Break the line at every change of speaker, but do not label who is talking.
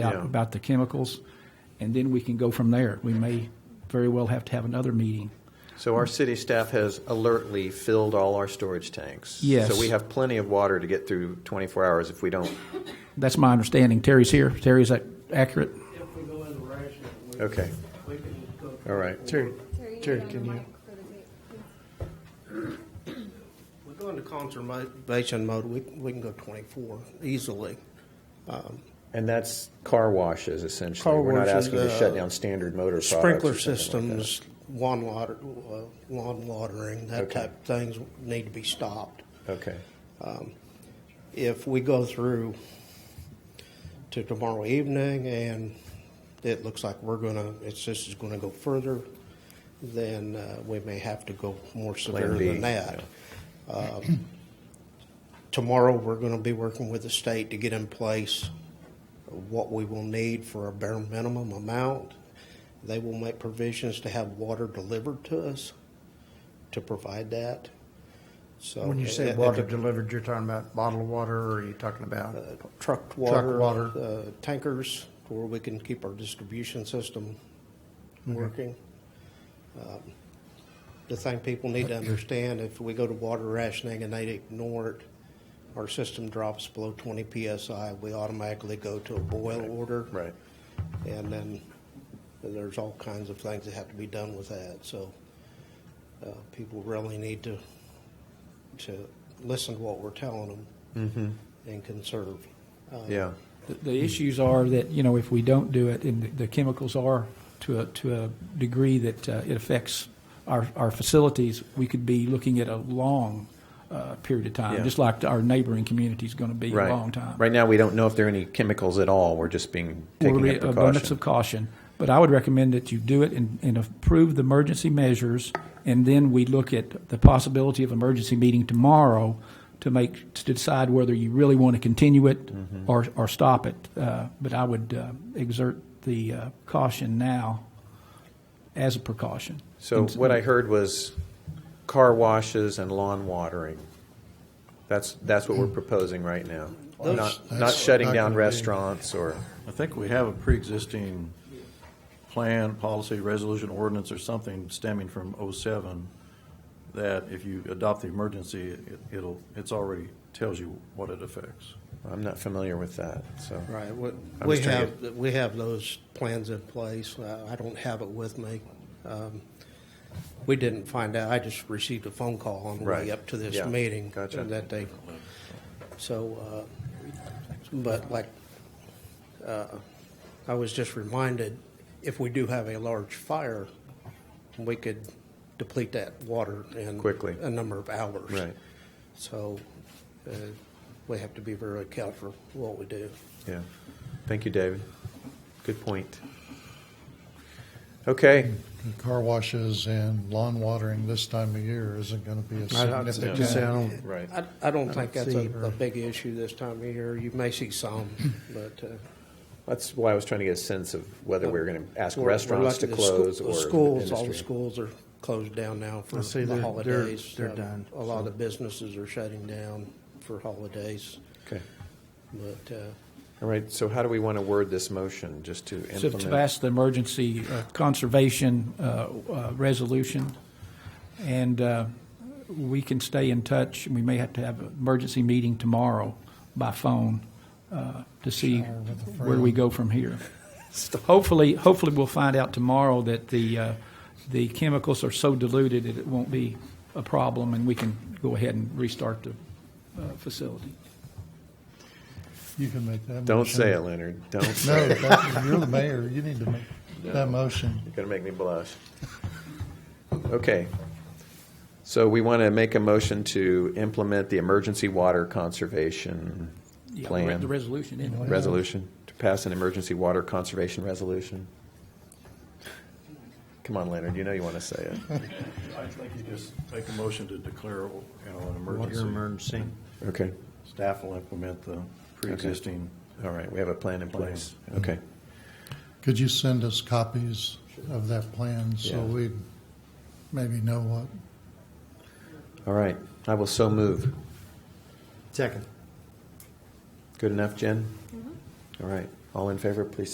out
Yeah.
about the chemicals, and then we can go from there. We may very well have to have another meeting.
So our city staff has alertly filled all our storage tanks.
Yes.
So we have plenty of water to get through 24 hours if we don't.
That's my understanding. Terry's here. Terry, is that accurate?
If we go into ration, we,
Okay.
we can cook.
All right.
Terry,
Terry, you
Terry,
need to
can you?
unmic for the tape, please.
We go into conservation mode, we, we can go twenty-four easily.
And that's car washes essentially.
Car
We're not
washes,
asking to
uh,
shut down standard motor products or
Sprinkler
something like that.
systems, lawn water, uh, lawn watering, that
Okay.
type of things need to be stopped.
Okay.
If we go through to tomorrow evening and it looks like we're gonna, it's, this is gonna go further, then, uh, we may have to go more severe
B,
than that. Um, Tomorrow, we're gonna be working with the state to get in place what we will need for a bare minimum amount. They will make provisions to have water delivered to us to provide that, so.
When you say
it- it-
water delivered, you're talking about bottled water, or are you talking about?
Uh, trucked
Truck
water,
water.
Uh, tankers, where we can keep our distribution system working. Um, The thing people need to understand, if we go to water rationing and they ignore it, our system drops below 20 PSI, we automatically go to a boil order.
Right.
And then there's all kinds of things that have to be done with that, so uh, people really need to, to listen to what we're telling them and conserve. Uh,
Yeah.
The, the issues are that you know if we don't do it, and the, the chemicals are to a to a degree that uh, it affects our our facilities, we could be looking at a long uh, period of time,
Yeah.
just like our neighboring community is going to be
Right.
a long time.
Right now, we don't know if there are any chemicals at all. We're just being
Will
taking
be
a
an abundance
precaution.
of caution. But I would recommend that you do it and, and approve the emergency measures, and then we look at the possibility of emergency meeting tomorrow to make to decide whether you really want to continue it
Mm-hmm.
or or stop it. Uh, but I would uh, exert the uh, caution now as a precaution.
So what I heard was car washes and lawn watering. That's, that's what we're proposing right now.
Those-
Not, not
that's
shutting
not
down
gonna be-
restaurants or,
I think we have a pre-existing plan, policy, resolution, ordinance, or something stemming from '07, that if you adopt the emergency, it- it'll, it's already tells you what it affects.
I'm not familiar with that, so.
Right, we-
I'm
we
just trying
have, we have those plans in place. Uh, I don't have it with me. Um, We didn't find out, I just received a phone call on the
Right.
way up to this
Yeah.
meeting.
Gotcha.
That they, so, uh, but like, uh, I was just reminded, if we do have a large fire, we could deplete that water in.
Quickly.
A number of hours.
Right.
So uh, we have to be very careful what we do.
Yeah. Thank you, David. Good point. Okay,
car washes and lawn watering this time of year isn't going to be a
I'd
significant.
just say I don't,
right.
I, I don't think that's a,
see her.
a big issue this time of year. You may see some, but uh,
That's why I was trying to get a sense of whether we were going to ask
we're- we're
restaurants to
lucky the scho-
close
the
or
schools. All the
industry.
schools are closed down now for
I see
the
they're- they're-
holidays.
they're
Um,
done,
A lot of the businesses are shutting down for holidays,
Okay.
but uh,
All right, so how do we want to word this motion, just to
So to
implement?
pass the emergency uh, conservation uh, uh, resolution, and uh, we can stay in touch. We may have to have an emergency meeting tomorrow by phone uh, to see where we go from here. Hopefully, hopefully we'll find out tomorrow that the, uh, the chemicals are so diluted that it won't be a problem, and we can go ahead and restart the uh, facility.
You can make that.
Don't
motion.
say it, Leonard, don't say
No,
it.
that- you're the mayor. You need to make that motion.
You're going to make me blush. Okay. So we want to make a motion to implement the emergency water conservation
Yeah, the re-
plan.
The resolution, anyway.
Resolution, to pass an emergency water conservation resolution. Come on, Leonard, you know you want to say it.
I think you just make a motion to declare, you know, an
water
emergency.
emergency.
Okay,
Staff will implement the pre-existing.
all right, we have a plan in place. Okay,
Could you send us copies of that plan so
Yeah.
we maybe know what?
all right, I will so move.
Second.
Good enough, Jen? All right, All in favor, please